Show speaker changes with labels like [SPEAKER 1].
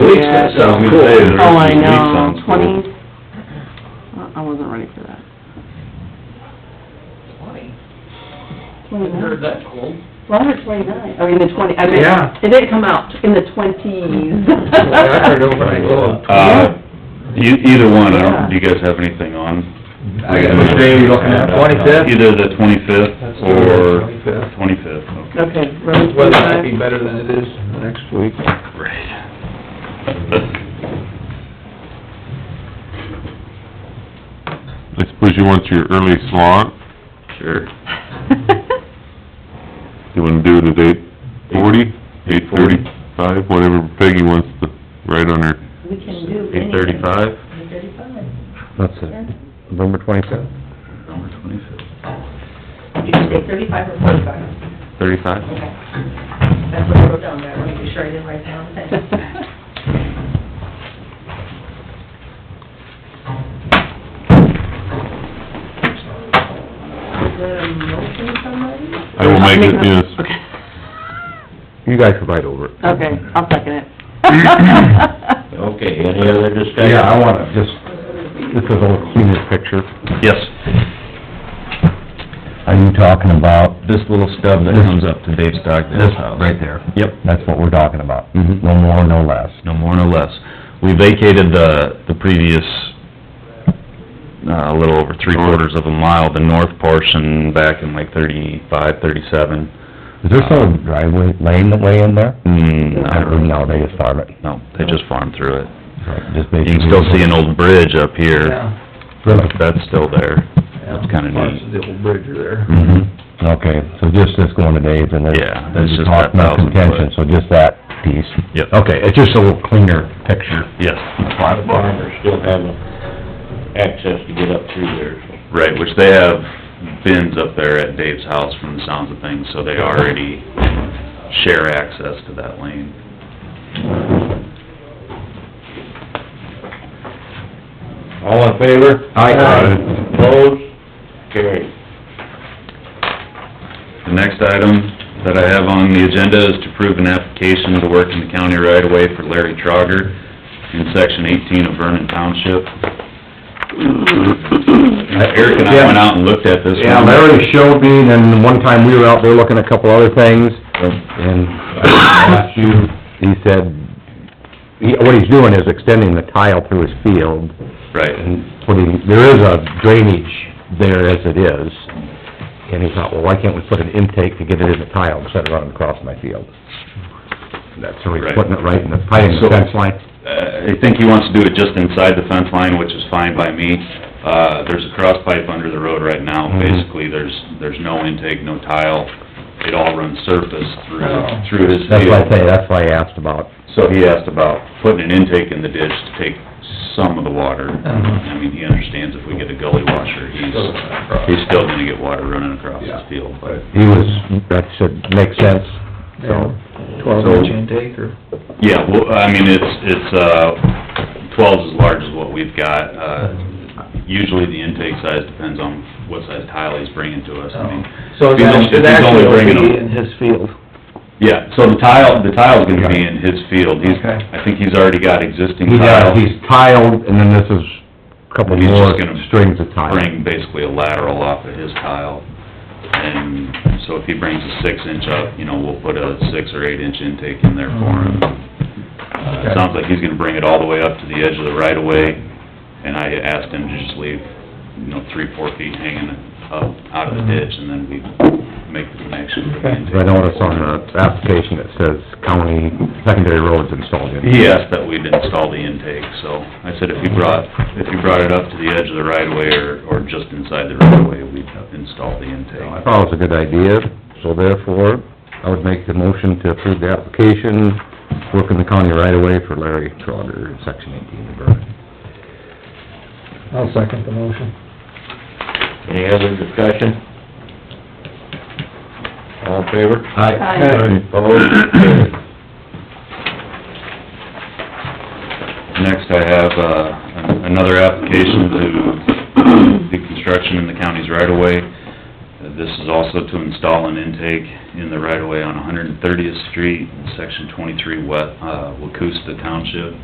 [SPEAKER 1] weeks,
[SPEAKER 2] Yeah.
[SPEAKER 1] that sounds
[SPEAKER 3] Good day,
[SPEAKER 1] cool.
[SPEAKER 3] there.
[SPEAKER 2] Oh, I
[SPEAKER 3] Weeks
[SPEAKER 2] know,
[SPEAKER 3] sounds cool.
[SPEAKER 2] twenty, I- I wasn't ready for that.
[SPEAKER 4] Twenty, hadn't
[SPEAKER 2] Twenty-nine,
[SPEAKER 4] heard that cold.
[SPEAKER 2] well, I heard twenty-nine, I mean, the twenty, I mean,
[SPEAKER 1] Yeah.
[SPEAKER 2] it didn't come out in the twenties.
[SPEAKER 1] I heard over my globe.
[SPEAKER 3] Uh, e- either one, I
[SPEAKER 2] Yeah.
[SPEAKER 3] don't, do you guys have anything on?
[SPEAKER 1] I got, which day are you looking at, twenty-fifth?
[SPEAKER 3] Either the twenty-fifth or
[SPEAKER 1] 25th.
[SPEAKER 3] twenty-fifth, okay.
[SPEAKER 2] Okay, road
[SPEAKER 1] Weather might be
[SPEAKER 2] twenty-five,
[SPEAKER 1] better than it is next week.
[SPEAKER 3] Right.
[SPEAKER 5] I suppose you want your early slot,
[SPEAKER 3] Sure.
[SPEAKER 5] you wanna do it at eight forty, eight thirty-five, whatever Peggy wants to write on her.
[SPEAKER 4] We can do
[SPEAKER 3] Eight thirty-five?
[SPEAKER 4] Eight thirty-five.
[SPEAKER 1] That's it, November twenty-fifth?
[SPEAKER 3] Number twenty-fifth.
[SPEAKER 4] You can say thirty-five or forty-five,
[SPEAKER 3] Thirty-five?
[SPEAKER 4] okay. That's what I wrote down, there. I wanted to be sure I didn't write down the thing. Is there a motion somebody?
[SPEAKER 5] I will make it, yes.
[SPEAKER 2] Okay.
[SPEAKER 1] You guys can fight over it.
[SPEAKER 2] Okay, I'll second it.
[SPEAKER 6] Okay, any other discussion?
[SPEAKER 1] Yeah, I wanna just, this is a cleaner picture.
[SPEAKER 3] Yes.
[SPEAKER 6] Are you talking about? This little stub that comes up to Dave Stockdale's house. Right there. Yep. That's what we're talking about. No more, no less. No more, no less. We vacated the, the previous, uh, a little over three quarters of a mile, the north portion back in like thirty-five, thirty-seven.
[SPEAKER 7] Is there still a driveway, lane that way in there?
[SPEAKER 6] Mm, not
[SPEAKER 7] Or
[SPEAKER 6] really,
[SPEAKER 7] No, they just farm it.
[SPEAKER 6] no, they just farmed through it.
[SPEAKER 7] Just
[SPEAKER 6] You can still see an old bridge up here,
[SPEAKER 7] Really?
[SPEAKER 6] that's still there. That's kinda neat.
[SPEAKER 1] Parts of the old bridge are there.
[SPEAKER 7] Mm-hmm. Okay, so just this going to Dave's and then...
[SPEAKER 6] Yeah, that's just
[SPEAKER 7] you talked
[SPEAKER 6] that 1,000
[SPEAKER 7] about contention, So just that piece?
[SPEAKER 6] Yep.
[SPEAKER 7] Okay, it's just a little cleaner picture.
[SPEAKER 6] Yes.
[SPEAKER 7] Farm
[SPEAKER 8] farmers still have access to get up through there, so.
[SPEAKER 3] Right, which they have bins up there at Dave's house from the sounds of things, so they already share access to that lane.
[SPEAKER 8] All in favor?
[SPEAKER 1] Aye.
[SPEAKER 8] Opposed? Carried.
[SPEAKER 3] The next item that I have on the agenda is to approve an application to work in the county right away for Larry Trogger in section eighteen of Vernon Township. Uh, Eric and I went out and looked at this one.
[SPEAKER 7] Yeah, Larry showed me, and then one time we were out there looking at a couple other things,
[SPEAKER 3] Uh,
[SPEAKER 7] and I asked you, he said, he- what he's doing is extending the tile through his field,
[SPEAKER 3] Right,
[SPEAKER 7] and putting, there is a drainage there as it is, and he thought, well, why can't we put an intake to get it in the tile instead of running across my field? And That's where he's
[SPEAKER 3] Right.
[SPEAKER 7] putting it right in the, right in the
[SPEAKER 3] So-
[SPEAKER 7] fence line.
[SPEAKER 3] uh, I think he wants to do it just inside the fence line, which is fine by me. Uh, there's a cross pipe under the road right now,
[SPEAKER 7] Mhm.
[SPEAKER 3] basically, there's, there's no intake, no tile, it all runs surface through,
[SPEAKER 4] Oh.
[SPEAKER 3] through his
[SPEAKER 7] That's why I
[SPEAKER 3] field.
[SPEAKER 7] say, that's why I asked about,
[SPEAKER 3] So he asked about putting an intake in the ditch to take some of the water.
[SPEAKER 7] Uh-huh.
[SPEAKER 3] I mean, he understands if we get a gully washer, he's, he's still gonna get water running across his field, but...
[SPEAKER 7] he was, that should make sense, so.
[SPEAKER 1] Twelve inch intake or?
[SPEAKER 3] Yeah, well, I mean, it's, it's, uh, twelve's as large as what we've got. Uh, usually the intake size depends on what size tile he's bringing to us. I mean,
[SPEAKER 7] Oh.
[SPEAKER 2] So
[SPEAKER 3] If he's only- if he's only bringing them-
[SPEAKER 2] his field.
[SPEAKER 3] Yeah, so the tile, the tile's gonna be in his field. He's,
[SPEAKER 2] Okay.
[SPEAKER 3] I think he's already got existing
[SPEAKER 7] He
[SPEAKER 3] tile.
[SPEAKER 7] got, he's tiled, and then this is a couple
[SPEAKER 3] He's
[SPEAKER 7] more
[SPEAKER 3] just gonna
[SPEAKER 7] strings of tile.
[SPEAKER 3] bring basically a lateral off of his tile. And so if he brings a six inch up, you know, we'll put a six or eight inch intake in there for him. Uh, it sounds like he's gonna bring it all the way up to the edge of the right of way, and I asked him to just leave, you know, three, four feet hanging up out of the ditch, and then we make the connection for the intake.
[SPEAKER 7] Mm-hmm. I noticed on the application it says county secondary roads installed in.
[SPEAKER 3] He asked that we'd install the intake, so I said if you brought, if you brought it up to the edge of the right of way or, or just inside the right of way, we'd install the intake.
[SPEAKER 7] I thought it was a good idea, so therefore, I would make the motion to approve the application, work in the county right away for Larry Trotter, section eighteen of Vernon.
[SPEAKER 1] I'll second the motion.
[SPEAKER 8] Any other discussion? All in favor?
[SPEAKER 2] Aye.
[SPEAKER 8] Opposed? Carried.
[SPEAKER 3] Next, I have, uh, an- another application to the construction in the county's right-of-way. Uh, This is also to install an intake in the right-of-way on 130th Street, in section 23 West, uh, Wacusta Township.